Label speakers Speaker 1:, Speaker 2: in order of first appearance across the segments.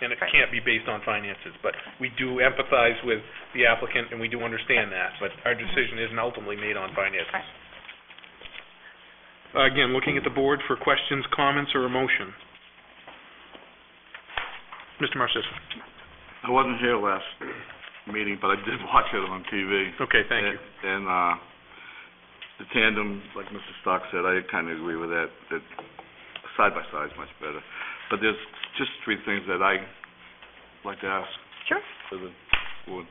Speaker 1: and it
Speaker 2: Right.
Speaker 1: can't be based on finances. But we do empathize with the applicant, and we do understand that, but our decision isn't ultimately made on finances. Again, looking at the board for questions, comments, or a motion. Mr. Marcis?
Speaker 3: I wasn't here last meeting, but I did watch it on TV.
Speaker 1: Okay, thank you.
Speaker 3: And, uh, the tandem, like Mr. Stock said, I kind of agree with that, that side by side's much better. But there's just three things that I like to ask
Speaker 2: Sure.
Speaker 3: for the board.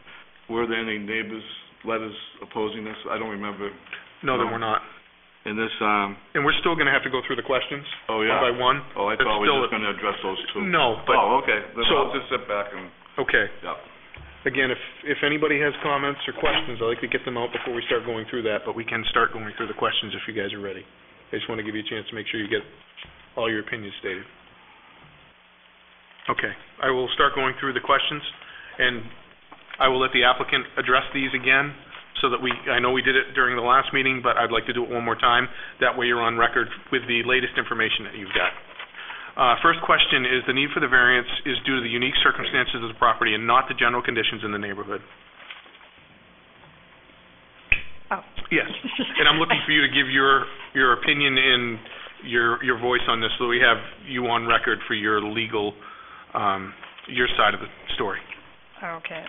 Speaker 3: Were there any neighbors' letters opposing this? I don't remember.
Speaker 1: No, then we're not.
Speaker 3: And this, um,
Speaker 1: And we're still going to have to go through the questions
Speaker 3: oh,
Speaker 1: one by
Speaker 3: yeah.
Speaker 1: one?
Speaker 3: Oh, I
Speaker 1: It's
Speaker 3: thought we
Speaker 1: still
Speaker 3: were just
Speaker 1: a-
Speaker 3: going to address those two.
Speaker 1: No, but,
Speaker 3: Oh, okay. Then
Speaker 1: So-
Speaker 3: I'll just sit back and,
Speaker 1: okay.
Speaker 3: yeah.
Speaker 1: Again, if, if anybody has comments or questions, I'd like to get them out before we start going through that, but we can start going through the questions if you guys are ready. I just want to give you a chance to make sure you get all your opinions stated. Okay, I will start going through the questions, and I will let the applicant address these again, so that we, I know we did it during the last meeting, but I'd like to do it one more time. That way you're on record with the latest information that you've got. Uh, First question is, the need for the variance is due to the unique circumstances of the property and not the general conditions in the neighborhood.
Speaker 2: Oh.
Speaker 1: Yes, and I'm looking for you to give your, your opinion and your, your voice on this, so we have you on record for your legal, um, your side of the story.
Speaker 2: Okay.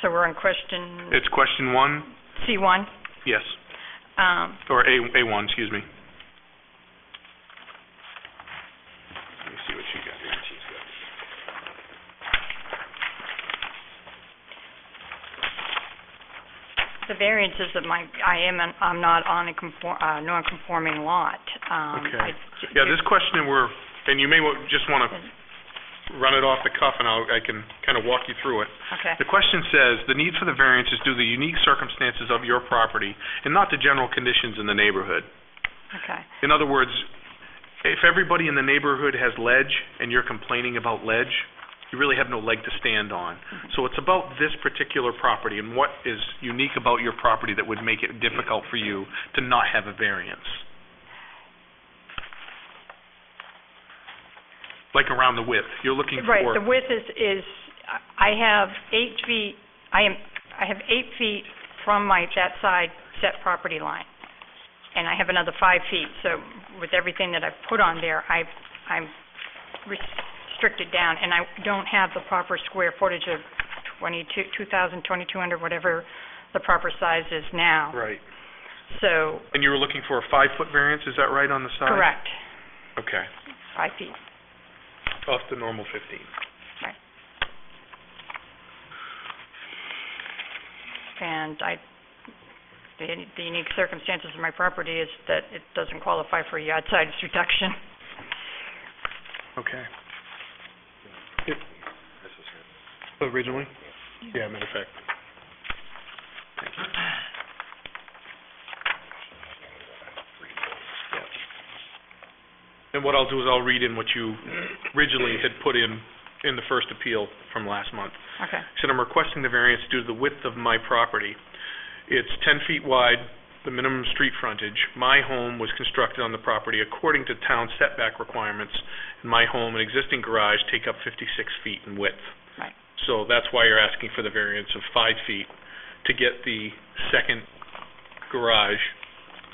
Speaker 2: So we're on question
Speaker 1: It's question one,
Speaker 2: C1.
Speaker 1: yes,
Speaker 2: Um,
Speaker 1: or A, A1, excuse me. Let me see what you got here, what she's got.
Speaker 2: The variance is that my, I am, an- I'm not on a conform, uh, non-conforming lot. Um,
Speaker 1: Okay.
Speaker 2: I-
Speaker 1: Yeah, this question we're, and you may wa- just want to run it off the cuff, and I'll, I can kind of walk you through it.
Speaker 2: Okay.
Speaker 1: The question says, "The need for the variance is due to the unique circumstances of your property and not the general conditions in the neighborhood."
Speaker 2: Okay.
Speaker 1: In other words, if everybody in the neighborhood has ledge and you're complaining about ledge, you really have no leg to stand on. So it's about this particular property and what is unique about your property that would make it difficult for you to not have a variance. Like around the width, you're looking for...
Speaker 2: Right, the width is, is, I have eight feet, I am, I have eight feet from my, that side set property line. And I have another five feet, so with everything that I've put on there, I, I'm restricted down, and I don't have the proper square footage of twenty-two, two thousand, twenty-two hundred, whatever the proper size is now.
Speaker 1: Right.
Speaker 2: So,
Speaker 1: And you were looking for a five-foot variance, is that right, on the side?
Speaker 2: correct,
Speaker 1: Okay,
Speaker 2: five feet.
Speaker 1: off the normal 15.
Speaker 2: and I, the the unique circumstances of my property is that it doesn't qualify for yard size reduction.
Speaker 1: Okay. It- Originally? Yeah, matter of fact. Thank you. Yeah. And what I'll do is I'll read in what you originally had put in, in the first appeal from last month.
Speaker 2: Okay,
Speaker 1: said, I'm requesting the variance due to the width of my property. It's 10 feet wide, the minimum street frontage. My home was constructed on the property according to town setback requirements, and my home and existing garage take up 56 feet in width.
Speaker 2: Right.
Speaker 1: So that's why you're asking for the variance of five feet to get the second garage,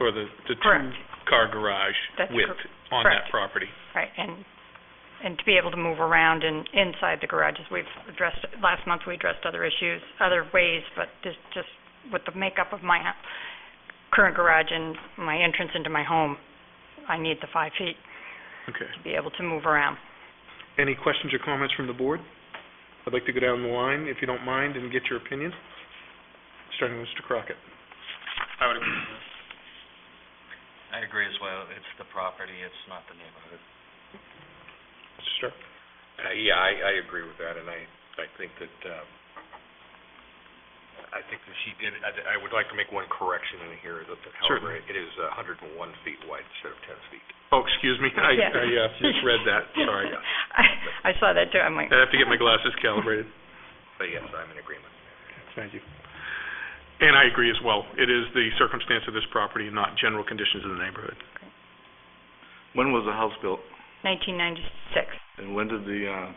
Speaker 1: or the the
Speaker 2: Correct.
Speaker 1: two-car garage
Speaker 2: That's cor-
Speaker 1: width on that
Speaker 2: correct.
Speaker 1: property.
Speaker 2: right, and, and to be able to move around and inside the garages, we've addressed, last month we addressed other issues, other ways, but this just with the makeup of my hou- current garage and my entrance into my home, I need the five feet
Speaker 1: Okay.
Speaker 2: to be able to move around.
Speaker 1: Any questions or comments from the board? I'd like to go down the line, if you don't mind, and get your opinion, starting with Mr. Crockett.
Speaker 4: I would agree. I agree as well. It's the property, it's not the neighborhood.
Speaker 1: Mr. Stark?
Speaker 5: Uh, Yeah, I, I agree with that, and I, I think that, um, I think that she did, I, I would like to make one correction in here, that, that however,
Speaker 1: Certainly.
Speaker 5: it is a hundred and one feet wide instead of ten feet.
Speaker 1: Oh, excuse me, I,
Speaker 2: Yeah.
Speaker 1: I uh, misread that, sorry.
Speaker 2: I, I saw that too, I'm like.
Speaker 1: I have to get my glasses calibrated.
Speaker 5: But yes, I'm in agreement.
Speaker 1: Thank you. And I agree as well. It is the circumstance of this property and not general conditions in the neighborhood.
Speaker 3: When was the house built?
Speaker 2: Nineteen ninety-six.
Speaker 3: And when did the, uh,